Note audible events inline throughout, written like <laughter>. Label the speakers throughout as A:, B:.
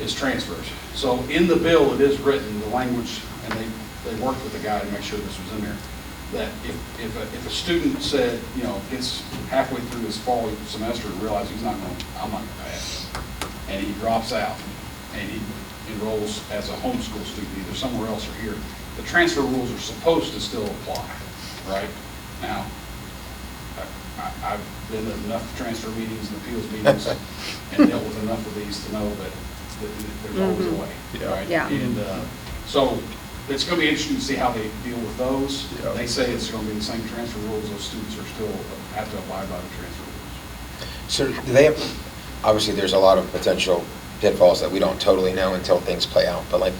A: is transfers. So in the bill, it is written, the language, and they, they worked with the guy to make sure this was in there, that if, if, a- if a student said, you know, gets halfway through his fall semester and realizes he's not going, I'm not going to pass, and he drops out, and he enrolls as a homeschool student, either somewhere else or here, the transfer rules are supposed to still apply, right? Now, I- I- I've been to enough transfer meetings and appeals
B: <laughs>
A: meetings and dealt with enough of these to know that that there's always a way,
B: Yeah.
A: right?
C: Yeah.
A: And uh, so it's going to be interesting to see how they deal with those.
B: Yeah.
A: They say it's going to be the same transfer rules, those students are still, have to abide by the transfer rules.
D: So do they have, obviously, there's a lot of potential pitfalls that we don't totally know until things play out, but like,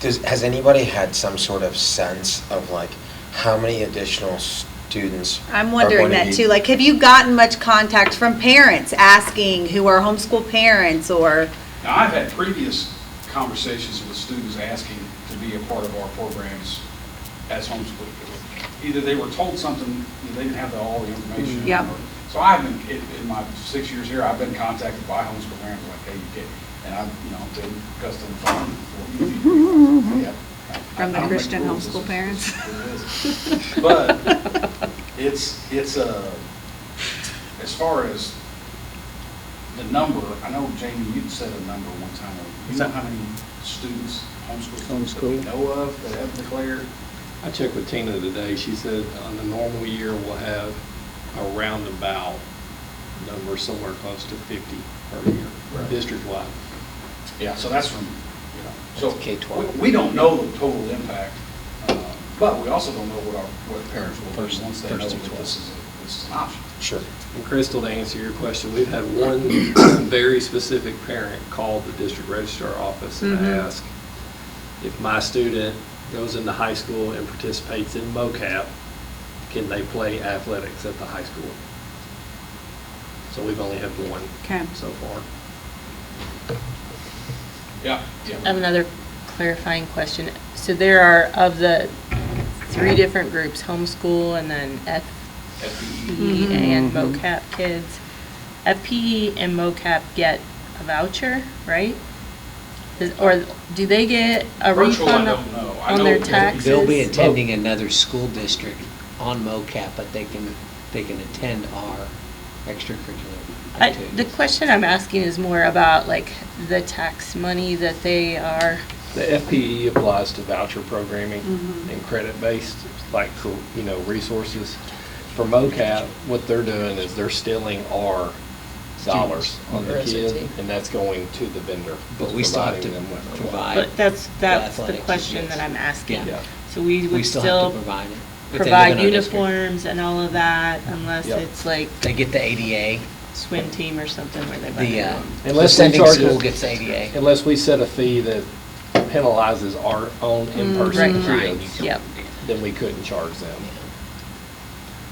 D: does, has anybody had some sort of sense of like, how many additional students?
C: I'm
D: are
C: wondering
D: going to
C: that
D: be-
C: too. Like, have you gotten much contact from parents asking who are homeschool parents or,
A: Now, I've had previous conversations with students asking to be a part of our programs as homeschool. Either they were told something, they didn't have the- all the information.
C: Mm, yep.
A: or- So I've been, in, in my six years here, I've been contacted by homeschool parents like, hey, you get, and I've, you know, been cussed on the phone for
C: <laughs>
A: years. Yeah.
C: From the
A: I don't make
C: Christian
A: rules.
C: homeschool
A: <laughs>
C: parents. <laughs>
A: But it's, it's a, as far as the number, I know Jamie, you said a number one time. You know how many students, homeschool students that we
B: Homeschool.
A: know of that have declared?
B: I checked with Tina today, she said on the normal year, we'll have a roundabout number somewhere close to 50 per year,
A: Right.
B: district-wide.
A: Yeah, so that's from, you know. so
D: That's K-12.
A: we- We don't know the total impact, uh, but we also don't know what our, what parents will do
D: First-
A: once they know
D: first
A: that
D: through twelve.
A: this is, a- this is an option.
D: Sure.
B: And Crystal, to answer your question, we've had one <coughs> very specific parent call the district registrar office and
C: Mhm.
B: ask if my student goes into high school and participates in MOCAP, can they play athletics at the high school? So we've only had one
C: Okay.
B: so far.
A: Yeah, yeah.
E: I have another clarifying question. So there are, of the three different groups, homeschool and then
A: FPE.
E: FPE and
F: Mm-hmm.
E: MOCAP kids, FPE and MOCAP get a voucher, right? Is- Or do they get a
A: Virtual, I
E: refund
A: don't know. I
E: on
A: know
E: their
A: that they'll
E: taxes?
F: They'll be
B: Oh.
F: attending another school district on MOCAP, but they can, they can attend our extracurricular
E: I- The
F: activities.
E: question I'm asking is more about like the tax money that they are,
B: The FPE applies to voucher programming and credit-based, like, for, you know, resources. For MOCAP, what they're doing is they're stealing our dollars on the kid, and that's going to the vendor.
F: But we still have
B: providing them
F: to
B: with-
F: provide,
E: but that's, that's the
F: athletics is
E: question
F: yes.
E: that I'm asking.
B: Yeah.
E: So we
F: we
E: would
F: still have to
E: still
F: provide it. But they live in
E: provide
F: our district.
E: uniforms and all of that unless
B: Yep.
E: it's like
F: They get the ADA,
E: swim team or something where they buy
F: the,
E: their
F: uh,
E: own.
F: the
B: Unless we
F: sending
B: charge
F: school
B: it-
F: gets ADA.
B: Unless we set a fee that penalizes our own in-person
E: Right, right,
B: kids,
E: yep.
B: then we couldn't charge them.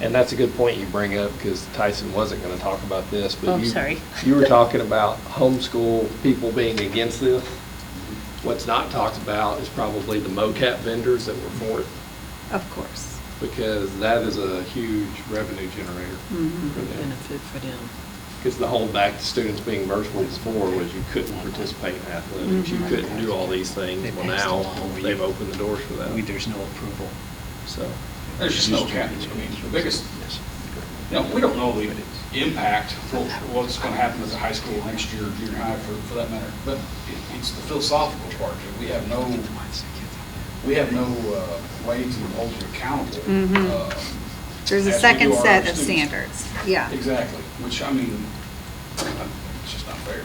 B: And that's a good point you bring up, because Tyson wasn't going to talk about this, but
E: Oh,
B: you.
E: sorry.
B: You were talking about homeschool people being against this. What's not talked about is probably the MOCAP vendors that were for it,
C: of course.
B: because that is a huge revenue generator for them.
G: benefit for them.
B: Because the whole back to students being virtual before was you couldn't participate in athletics, you couldn't do all these things.
F: They
B: Well,
F: passed a
B: now,
F: law where you-
B: they've opened the doors for
F: We,
B: that,
F: there's no approval.
B: so.
A: There's just no cap. I mean, the biggest, you know, we don't know the impact, what- what's going to happen at the high school next year, junior high, for, for that matter. But it- it's the philosophical part. that We have no, we have no uh, way to hold you accountable.
C: Mhm.
A: uh,
C: There's a
A: as we
C: second
A: do our
C: set of
A: students.
C: standards, yeah.
A: Exactly, which, I mean, it's just not fair.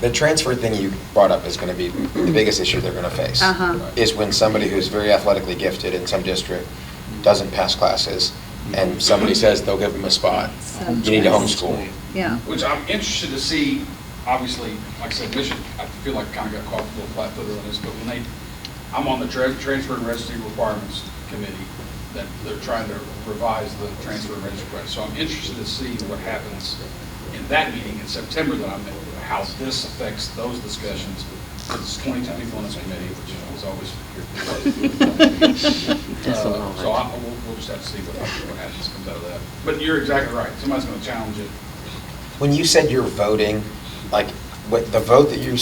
D: The transfer thing you brought up is going to be the biggest issue they're going to face.
C: Uh-huh.
D: Is when somebody who's very athletically gifted in some district doesn't pass classes, and somebody says they'll give them a spot.
C: So-
D: You need to homeschool.
C: Yeah.
A: Which I'm interested to see, obviously, like I said, Mission, I feel like kind of got caught a little flat-footed on this, but when they, I'm on the tra- Transfer and Registry Requirements Committee, that they're trying to revise the transfer and registry, requirements. so I'm interested to see what happens in that meeting in September that I'm in, how this affects those discussions, because it's 2021 as a committee, which is always here. Uh, So I, we'll, we'll just have to see what what happens, comes out of that. But you're exactly right, somebody's going to challenge it.
D: When you said you're voting, like, what, the vote that you